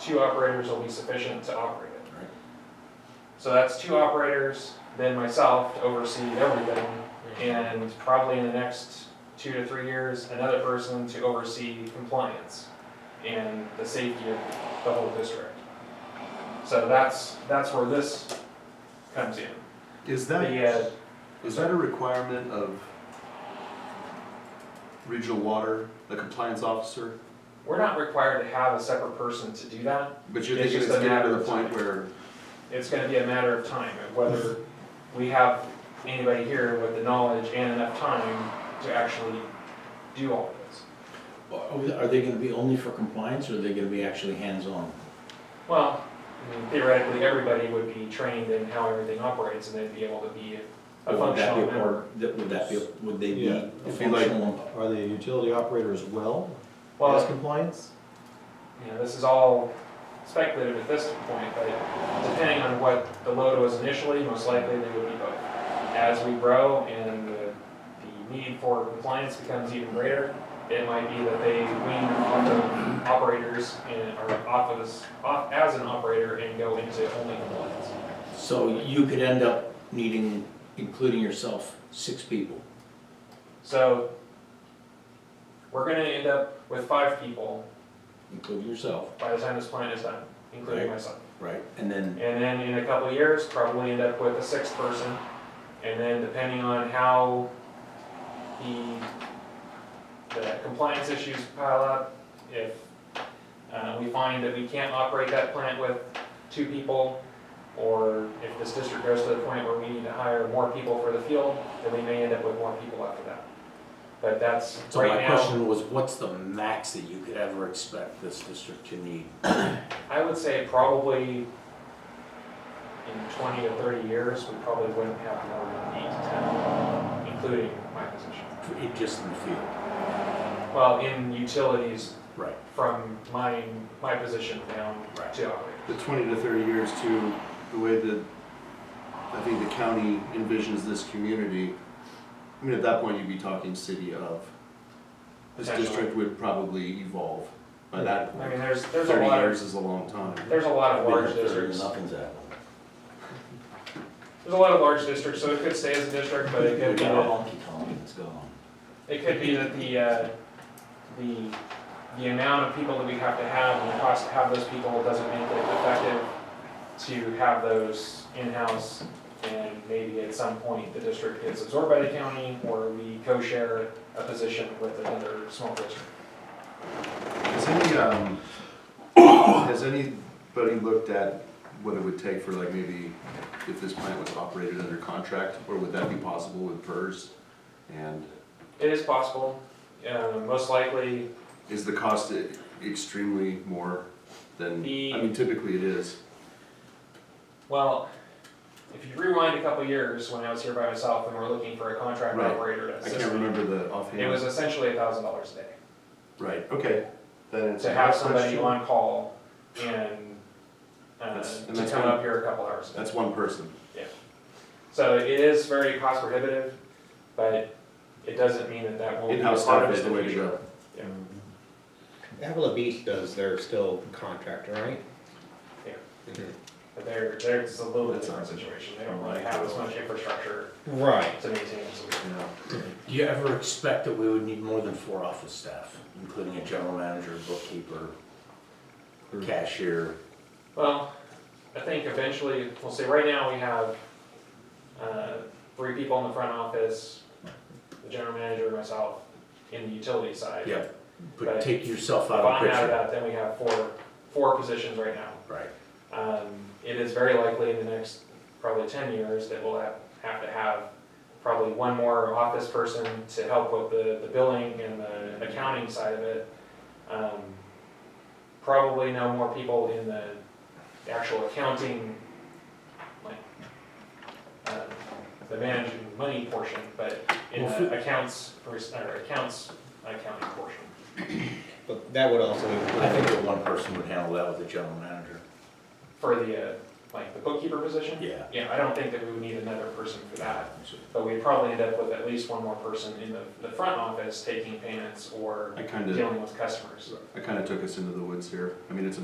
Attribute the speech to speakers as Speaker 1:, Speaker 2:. Speaker 1: two operators will be sufficient to operate it.
Speaker 2: Right.
Speaker 1: So that's two operators, then myself to oversee everything, and probably in the next two to three years, another person to oversee compliance and the safety of the whole district. So that's, that's where this comes in.
Speaker 3: Is
Speaker 1: The, uh,
Speaker 3: that, is that a requirement of regional water, the compliance officer?
Speaker 1: We're not required to have a separate person to do that.
Speaker 3: But you're
Speaker 1: It's
Speaker 3: thinking it's
Speaker 1: just a
Speaker 3: getting to
Speaker 1: matter
Speaker 3: the
Speaker 1: of
Speaker 3: point
Speaker 1: time.
Speaker 3: where,
Speaker 1: It's gonna be a matter of time, of whether we have anybody here with the knowledge and enough time to actually do all of this.
Speaker 2: Are we- are they gonna be only for compliance, or are they gonna be actually hands-on?
Speaker 1: Well, I mean, theoretically, everybody would be trained in how everything operates and they'd be able to be a
Speaker 2: Or would that be
Speaker 1: functional
Speaker 2: a
Speaker 1: member.
Speaker 2: part- that- Would that be, a- would they be
Speaker 4: Yeah,
Speaker 2: a
Speaker 4: if you like-
Speaker 2: functional?
Speaker 4: Are they a utility operator as well as
Speaker 1: Well,
Speaker 4: compliance?
Speaker 1: you know, this is all speculative at this point, but depending on what the load was initially, most likely they would be both. As we grow and the, the need for compliance becomes even greater, it might be that they wean off of operators and, or off of this, off as an operator and go into only compliance.
Speaker 2: So you could end up needing, including yourself, six people.
Speaker 1: So, we're gonna end up with five people
Speaker 2: Including yourself,
Speaker 1: by the time this plan is done, including
Speaker 2: Right.
Speaker 1: myself.
Speaker 2: right? And then,
Speaker 1: And then in a couple of years, probably end up with a sixth person. And then depending on how the, the compliance issues pile up, if uh, we find that we can't operate that plant with two people, or if this district goes to the point where we need to hire more people for the field, then we may end up with more people after that. But that's
Speaker 2: so my
Speaker 1: right now,
Speaker 2: question was, what's the max that you could ever expect this district to need?
Speaker 1: I would say probably in twenty to thirty years, we probably wouldn't have more than eight to ten, including my position.
Speaker 2: for it Just in the field,
Speaker 1: Well, in utilities
Speaker 2: right?
Speaker 1: from my, my position down to operate.
Speaker 3: the twenty to thirty years to the way that, I think the county envisions this community, I mean, at that point, you'd be talking city of. This
Speaker 1: Potentially.
Speaker 3: district would probably evolve by that
Speaker 1: I
Speaker 3: point.
Speaker 1: mean, there's, there's a
Speaker 3: Thirty
Speaker 1: lot of,
Speaker 3: years is a long time.
Speaker 1: there's a lot of
Speaker 2: Been
Speaker 1: large
Speaker 2: up there and
Speaker 1: districts.
Speaker 2: Nothing's happened.
Speaker 1: There's a lot of large districts, so it could stay as a district, but uh, it
Speaker 2: We
Speaker 1: could be
Speaker 2: got a
Speaker 1: that,
Speaker 2: honky tonk and it's gone.
Speaker 1: it could be that the, uh, the, the amount of people that we have to have and the cost to have those people doesn't make it effective to have those in-house. And maybe at some point, the district gets absorbed by the county, or we co-share a position with another small district.
Speaker 3: Has any, um, has anybody looked at what it would take for like maybe if this plant was operated under contract, or would that be possible with PERS? And
Speaker 1: It is possible, uh, most likely,
Speaker 3: is the cost e- extremely more than, I mean, typically it is.
Speaker 1: well, if you rewind a couple years, when I was here by myself and we're looking for a contract
Speaker 3: Right.
Speaker 1: operator to
Speaker 3: I
Speaker 1: assist
Speaker 3: can't
Speaker 1: me,
Speaker 3: remember the
Speaker 1: It was
Speaker 3: offhand.
Speaker 1: essentially a thousand dollars a day.
Speaker 3: Right, okay. Then it's.
Speaker 1: to have somebody on call and, uh,
Speaker 3: That's- and
Speaker 1: to
Speaker 3: that's
Speaker 1: come
Speaker 3: one-
Speaker 1: up here a couple hours.
Speaker 3: That's one person.
Speaker 1: So it is very cost prohibitive, but it doesn't mean that that won't be
Speaker 3: In-house
Speaker 1: part
Speaker 3: staff
Speaker 1: of
Speaker 3: is
Speaker 1: it
Speaker 3: the
Speaker 1: in the
Speaker 3: way to
Speaker 1: future.
Speaker 3: go.
Speaker 5: Avila Beach does, they're still contractor, right?
Speaker 1: Yeah.
Speaker 5: Mhm.
Speaker 1: But there, there's a little bit
Speaker 3: That's
Speaker 1: different
Speaker 3: awesome.
Speaker 1: situation, they don't really have as much infrastructure
Speaker 5: Right.
Speaker 1: to maintain, so we-
Speaker 3: Yeah.
Speaker 2: Do you ever expect that we would need more than four office staff, including a general manager, bookkeeper, cashier?
Speaker 1: Well, I think eventually, we'll say, right now we have, uh, three people in the front office, the general manager, myself, in the utility side.
Speaker 2: Yeah, but
Speaker 1: Right.
Speaker 2: take yourself
Speaker 1: If
Speaker 2: out of
Speaker 1: I'm
Speaker 2: the
Speaker 1: out of
Speaker 2: picture.
Speaker 1: that, then we have four, four positions right now.
Speaker 2: Right,
Speaker 1: Um, it is very likely in the next probably ten years that we'll have, have to have probably one more office person to help with the, the billing and the accounting side of it. Um, probably no more people in the actual accounting, like, uh, the managing money portion, but in
Speaker 2: Well, fi-
Speaker 1: the accounts, pers- or accounts accounting portion.
Speaker 5: But that would also
Speaker 2: I
Speaker 5: include,
Speaker 2: think that one person would handle that with a general manager.
Speaker 1: For the, uh, like the bookkeeper position?
Speaker 2: Yeah.
Speaker 1: Yeah, I don't think that we would need another person for that, but we'd probably end up with at least one more person in the, the front office taking payments or
Speaker 3: I kinda,
Speaker 1: dealing with customers.
Speaker 3: I kinda took us into the woods here, I mean, it's a